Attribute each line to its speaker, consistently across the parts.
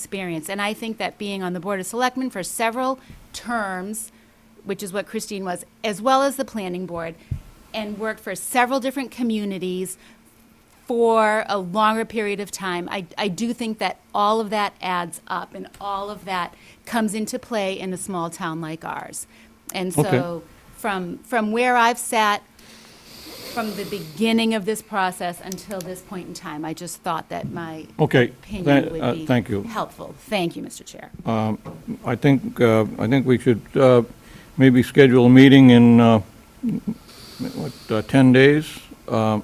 Speaker 1: experience. And I think that being on the Board of Selectmen for several terms, which is what Christine was, as well as the Planning Board, and worked for several different communities for a longer period of time, I, I do think that all of that adds up, and all of that comes into play in a small town like ours. And so, from, from where I've sat, from the beginning of this process until this point in time, I just thought that my
Speaker 2: Okay,
Speaker 1: opinion
Speaker 2: tha-
Speaker 1: would
Speaker 2: uh,
Speaker 1: be
Speaker 2: thank you.
Speaker 1: helpful. Thank you, Mr. Chair.
Speaker 2: I think, uh, I think we should uh, maybe schedule a meeting in, uh, what, uh, 10 days? Uh,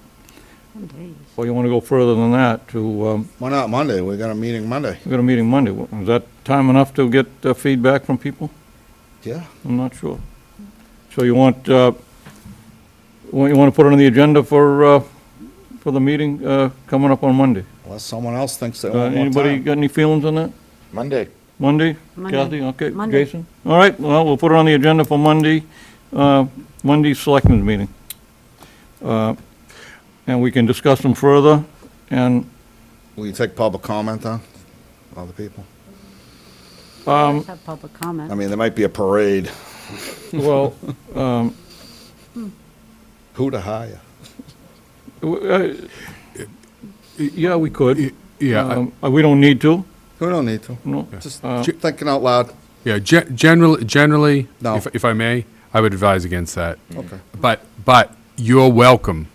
Speaker 2: Or you want to go further than that to, um,
Speaker 3: Why not Monday? We got a meeting Monday.
Speaker 2: we got a meeting Monday. Is that time enough to get uh, feedback from people?
Speaker 3: Yeah.
Speaker 2: I'm not sure. So you want, uh, wa- you want to put it on the agenda for, uh, for the meeting uh, coming up on Monday?
Speaker 3: Unless someone else thinks they
Speaker 2: Uh,
Speaker 3: want more
Speaker 2: Anybody
Speaker 3: time.
Speaker 2: got any feelings on that?
Speaker 4: Monday.
Speaker 2: Monday?
Speaker 5: Monday.
Speaker 2: Kathy, okay,
Speaker 5: Monday.
Speaker 2: Jason? All right, well, we'll put it on the agenda for Monday, uh, Monday's selectmen's meeting. Uh, And we can discuss them further, and,
Speaker 3: Will you take public comment on other people?
Speaker 2: Um,
Speaker 5: Let's have public
Speaker 3: I
Speaker 5: comment.
Speaker 3: mean, there might be a parade.
Speaker 2: well,
Speaker 3: Who to hire?
Speaker 2: w- uh, yeah, we could.
Speaker 6: Yeah, I-
Speaker 2: Um, uh, We don't need to,
Speaker 3: We don't need to.
Speaker 2: no.
Speaker 3: Just
Speaker 2: Uh,
Speaker 3: ju- thinking out loud.
Speaker 6: yeah, gen- generally, generally,
Speaker 3: No. Mm.
Speaker 6: if, if I may, I would advise against that.
Speaker 3: Okay.
Speaker 6: But, but you're welcome.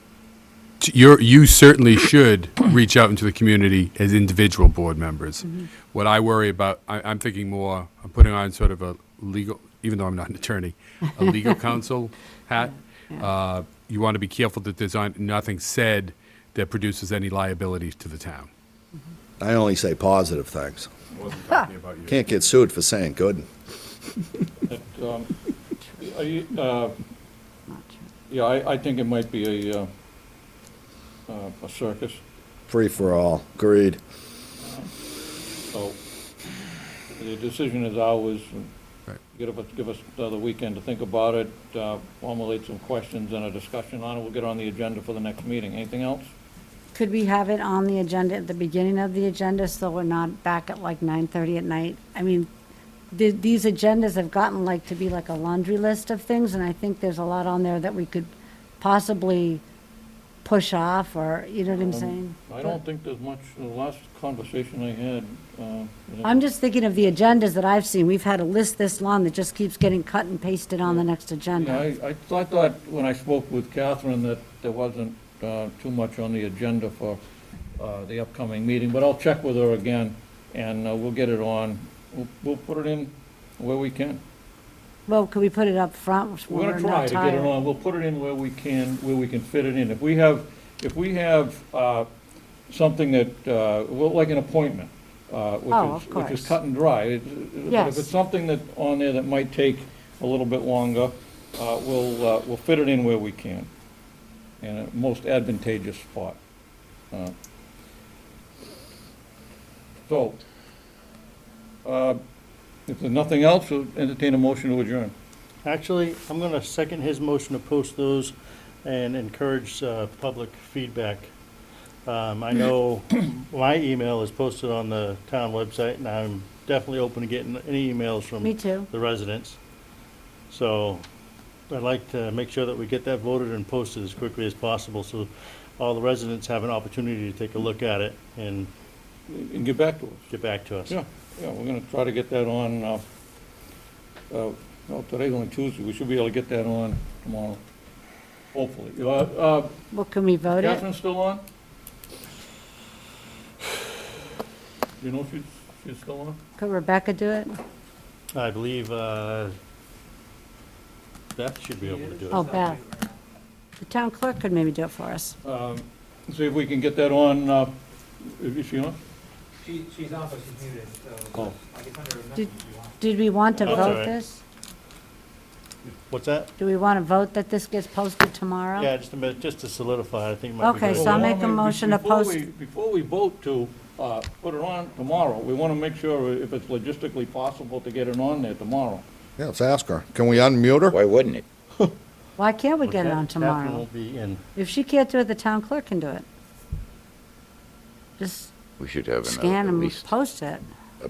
Speaker 6: to- You're, you certainly should reach out into the community as individual board members.
Speaker 3: Mm-hmm.
Speaker 6: What I worry about, I, I'm thinking more, I'm putting on sort of a legal, even though I'm not an attorney, a legal counsel hat. Uh, You want to be careful that there's on- nothing said that produces any liability to the town.
Speaker 3: I only say positive things. Can't get sued for saying good.
Speaker 2: um, Are you, uh, Yeah, I, I think it might be a, uh, uh, a circus,
Speaker 3: Free for all. Greed.
Speaker 2: so the decision is ours.
Speaker 6: Right.
Speaker 2: Give us, give us uh, the weekend to think about it, uh, formulate some questions and a discussion on it. We'll get on the agenda for the next meeting. Anything else?
Speaker 5: Could we have it on the agenda, at the beginning of the agenda, so we're not back at like 9:30 at night? I mean, the- these agendas have gotten like to be like a laundry list of things, and I think there's a lot on there that we could possibly push off, or, you know what I'm saying?
Speaker 2: Um, I don't think there's much, the last conversation I had, uh.
Speaker 5: I'm just thinking of the agendas that I've seen. We've had a list this long that just keeps getting cut and pasted on the next
Speaker 2: Yeah,
Speaker 5: agenda.
Speaker 2: I, I thought- I thought when I spoke with Catherine that there wasn't uh, too much on the agenda for uh, the upcoming meeting, but I'll check with her again, and uh, we'll get it on. We'll, we'll put it in where we can.
Speaker 5: Well, could we put it up front? when
Speaker 2: We're gonna try
Speaker 5: we're not
Speaker 2: to get it
Speaker 5: tired?
Speaker 2: on, we'll put it in where we can, where we can fit it in. If we have, if we have uh, something that, uh, well, like an appointment, uh,
Speaker 5: Oh,
Speaker 2: which is,
Speaker 5: of
Speaker 2: which is
Speaker 5: course.
Speaker 2: cut and dry. It- it- But if
Speaker 5: Yes.
Speaker 2: it's something that, on there that might take a little bit longer, uh, we'll, uh, we'll fit it in where we can, in a most advantageous spot. Uh, So, uh, if there's nothing else, we'll entertain a motion to adjourn.
Speaker 7: Actually, I'm going to second his motion to post those and encourage uh, public feedback. Um, I know my email is posted on the town website, and I'm definitely open to getting any emails from
Speaker 5: Me too.
Speaker 7: the residents. So I'd like to make sure that we get that voted and posted as quickly as possible, so all the residents have an opportunity to take a look at it and
Speaker 2: and get back to us.
Speaker 7: get back to us.
Speaker 2: Yeah, yeah, we're gonna try to get that on, uh, uh, well, today's only Tuesday, we should be able to get that on tomorrow, hopefully. Uh, uh,
Speaker 5: Well, can we vote it?
Speaker 2: Catherine's still on? You know if she's, she's still on?
Speaker 5: Could Rebecca do it?
Speaker 7: I believe uh, Beth should be able to do it.
Speaker 5: Oh, Beth. The town clerk could maybe do it for us.
Speaker 2: Um, See if we can get that on, uh, is she on?
Speaker 8: She, she's on, but she's muted, so
Speaker 2: Oh.
Speaker 8: I can send her a message
Speaker 5: Did-
Speaker 8: if you want.
Speaker 5: Did we want to
Speaker 7: That's all
Speaker 5: vote
Speaker 7: right.
Speaker 5: this?
Speaker 7: What's that?
Speaker 5: Do we want to vote that this gets posted tomorrow?
Speaker 7: Yeah, just a minute, just to solidify, I think it might be
Speaker 5: Okay,
Speaker 7: good.
Speaker 5: so
Speaker 2: Well,
Speaker 5: I'll make a
Speaker 2: why don't we-
Speaker 5: motion to
Speaker 2: before
Speaker 5: post-
Speaker 2: we- Before we vote to uh, put it on tomorrow, we wanna make sure if it's logistically possible to get it on there tomorrow.
Speaker 3: Yeah, let's ask her. Can we unmute her?
Speaker 4: Why wouldn't it?
Speaker 5: Why can't we get it on
Speaker 7: Catherine
Speaker 5: tomorrow?
Speaker 7: will be in.
Speaker 5: If she can't do it, the town clerk can do it. Just
Speaker 4: We should have another,
Speaker 5: scan
Speaker 4: uh, at
Speaker 5: and
Speaker 4: least,
Speaker 5: post it.